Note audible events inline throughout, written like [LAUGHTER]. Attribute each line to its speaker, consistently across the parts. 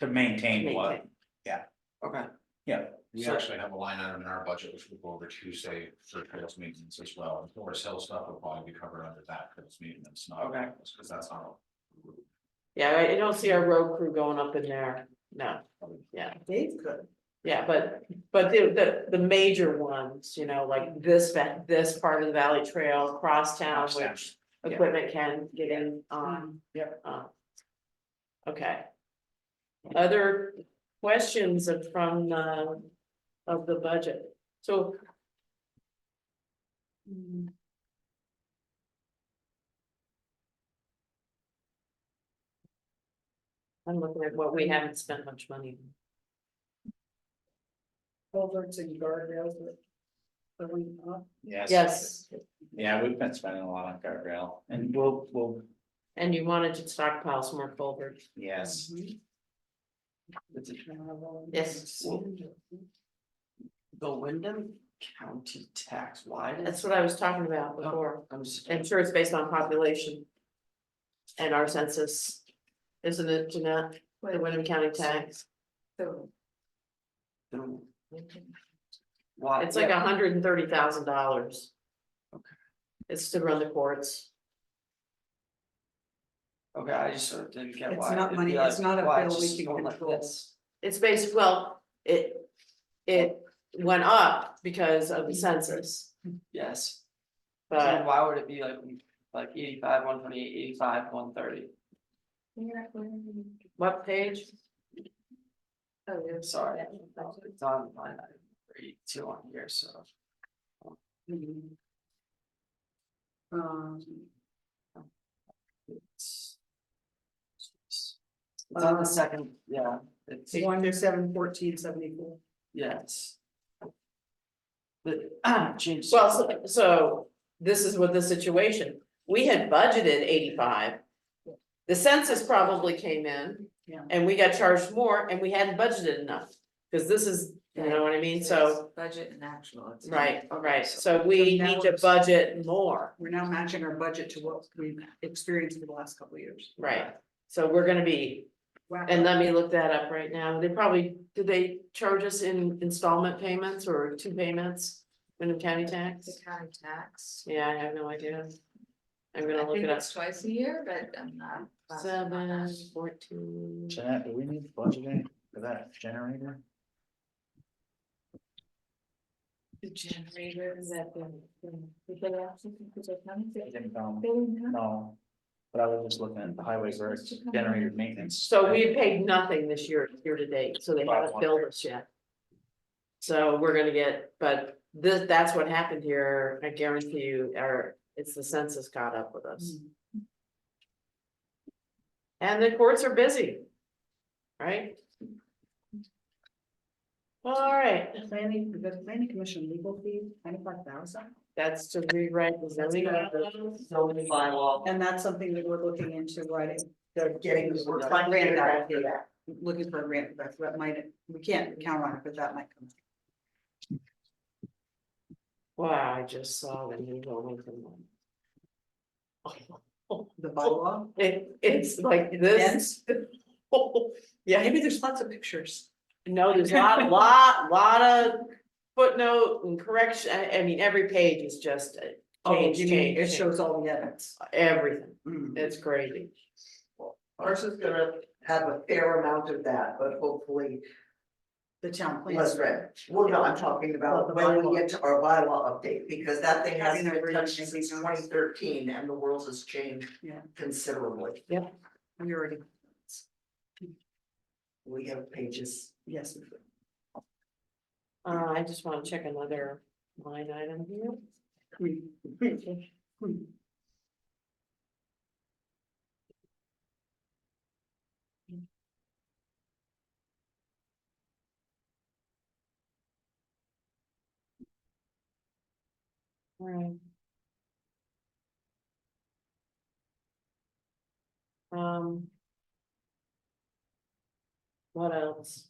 Speaker 1: to maintain what,
Speaker 2: Maintain.
Speaker 3: Okay.
Speaker 1: yeah,
Speaker 4: We
Speaker 3: So-
Speaker 4: actually have a line item in our budget, which we'll go over Tuesday for trails maintenance as well, and for sales stuff will probably be covered under that, because maintenance, not.
Speaker 3: Okay.
Speaker 4: Because that's not.
Speaker 2: Yeah, I, I don't see our road crew going up in there, no, yeah,
Speaker 3: Dave could.
Speaker 2: yeah, but, but the, the, the major ones, you know, like this, va- this part of the Valley Trail, crosstown, which
Speaker 1: Yeah.
Speaker 2: equipment can get in on.
Speaker 1: Yep.
Speaker 2: Uh, Okay. Other questions of- from, uh, of the budget, so. Hmm. I'm looking at what we haven't spent much money.
Speaker 3: Culverts and guardrails. Are we up?
Speaker 1: yes.
Speaker 2: Yes,
Speaker 1: Yeah, we've been spending a lot on guardrail and we'll, we'll,
Speaker 2: and you wanted to stockpile some more culverts.
Speaker 1: yes.
Speaker 3: It's a Mm-hmm. travel.
Speaker 2: Yes.
Speaker 3: The Wyndham County tax, why
Speaker 2: That's
Speaker 3: does,
Speaker 2: what I was talking
Speaker 3: Oh.
Speaker 2: about before.
Speaker 3: I'm just,
Speaker 2: I'm sure it's based on population. And our census, isn't it, Jeanette, the Wyndham County tax,
Speaker 3: why?
Speaker 2: it's like hundred and thirty thousand dollars.
Speaker 3: Uh, Okay.
Speaker 2: It's to run the courts,
Speaker 3: Okay, I just sort of didn't get
Speaker 5: It's
Speaker 3: why. it'd
Speaker 5: not
Speaker 3: be
Speaker 5: money-
Speaker 3: like,
Speaker 5: it's not a
Speaker 3: why
Speaker 5: bill
Speaker 3: it's
Speaker 5: we
Speaker 3: just
Speaker 5: can
Speaker 3: going like
Speaker 5: control.
Speaker 3: this?
Speaker 2: it's based, well, it, it went up because of the
Speaker 3: Mm-hmm.
Speaker 2: census,
Speaker 3: Yes, So then
Speaker 2: but.
Speaker 3: why would it be like, like eighty-five, one twenty-eight, eighty-five, one thirty?
Speaker 2: What page?
Speaker 3: Sorry, it's on line item three, two on here, so.
Speaker 5: Um,
Speaker 3: It's it's on the
Speaker 5: Um,
Speaker 3: second, yeah, it's,
Speaker 5: one to seven fourteen seventy four.
Speaker 3: yes. But, [CLEARS THROAT] ah, change.
Speaker 2: Well, so- so this is what the situation, we had budgeted eighty-five. The census probably came in.
Speaker 5: Yeah.
Speaker 2: And we got charged more and we hadn't budgeted enough, because this is, you know what I mean, so,
Speaker 5: Budget and actual. it's-
Speaker 2: right,
Speaker 3: Okay,
Speaker 2: right,
Speaker 3: so-
Speaker 2: so we
Speaker 5: So now
Speaker 2: need
Speaker 5: we're
Speaker 2: to
Speaker 5: just-
Speaker 2: budget more.
Speaker 5: We're now matching our budget to what we've experienced in the last couple of years.
Speaker 2: Right, so we're gonna be,
Speaker 5: Wow.
Speaker 2: and let me look that up right now, they probably, did they charge us in installment payments or two payments? Wyndham County tax,
Speaker 6: The county tax.
Speaker 2: yeah, I have no idea. I'm
Speaker 6: I
Speaker 2: gonna look
Speaker 6: think
Speaker 2: it up.
Speaker 6: it's twice a year, but I'm not. positive on
Speaker 2: Seven,
Speaker 6: that.
Speaker 2: fourteen.
Speaker 1: Jeanette, do we need budgeting for that generator?
Speaker 6: The generator is at the. the- the day after, because I come
Speaker 1: I
Speaker 6: to-
Speaker 1: think, um,
Speaker 6: they didn't have-
Speaker 1: No, but I was just looking at the highway where it's generated maintenance.
Speaker 2: So we paid nothing this year, year to date, so they haven't billed us yet. So we're gonna get, but this, that's what happened here, I guarantee you, or it's the census caught up with
Speaker 6: Hmm.
Speaker 2: us.
Speaker 5: Mm.
Speaker 2: And the courts are busy. Right? All right,
Speaker 5: The Planning, the planning commission legal fee, twenty five thousand,
Speaker 2: that's to rewrite the zoning. bylaws.
Speaker 3: Zoning bylaw.
Speaker 5: and that's something that we're looking into writing. They're
Speaker 3: getting-
Speaker 5: We're
Speaker 3: we're
Speaker 5: trying to
Speaker 2: finding
Speaker 5: get
Speaker 2: a
Speaker 5: it
Speaker 2: grant
Speaker 5: out
Speaker 2: for
Speaker 5: for
Speaker 2: that.
Speaker 5: that, looking for a grant, for that. that might, we can't count on it, but that might come.
Speaker 2: Wow, I just saw the new building from them.
Speaker 5: The bylaw,
Speaker 2: It, it's like this. [LAUGHS] Yeah,
Speaker 5: maybe there's lots of pictures.
Speaker 2: No, there's lot, lot, lot of footnote and correction, I, I mean, every page is just uh,
Speaker 5: Oh,
Speaker 2: change,
Speaker 5: you mean, it
Speaker 2: change, change,
Speaker 5: shows all the evidence.
Speaker 2: everything,
Speaker 5: Mm.
Speaker 2: it's crazy.
Speaker 7: Marsha's gonna have a fair amount of that, but hopefully
Speaker 5: The town plan.
Speaker 7: less red. Well, no, I'm talking
Speaker 5: Well, the
Speaker 7: about when
Speaker 5: bylaw.
Speaker 7: we get to our bylaw update, because that thing hasn't
Speaker 5: Having a
Speaker 7: been touched
Speaker 5: revision.
Speaker 7: since twenty thirteen and the world has changed
Speaker 5: Yeah.
Speaker 7: considerably.
Speaker 5: We already,
Speaker 7: We have pages.
Speaker 5: yes,
Speaker 2: Uh, I just wanna check another line item here.
Speaker 5: we,
Speaker 2: Right. Um. What else?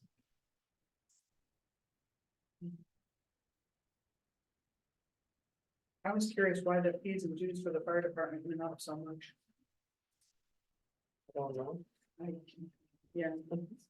Speaker 5: I was curious why the fees and dues for the fire department went up so much.
Speaker 2: I don't know.
Speaker 5: I, yeah,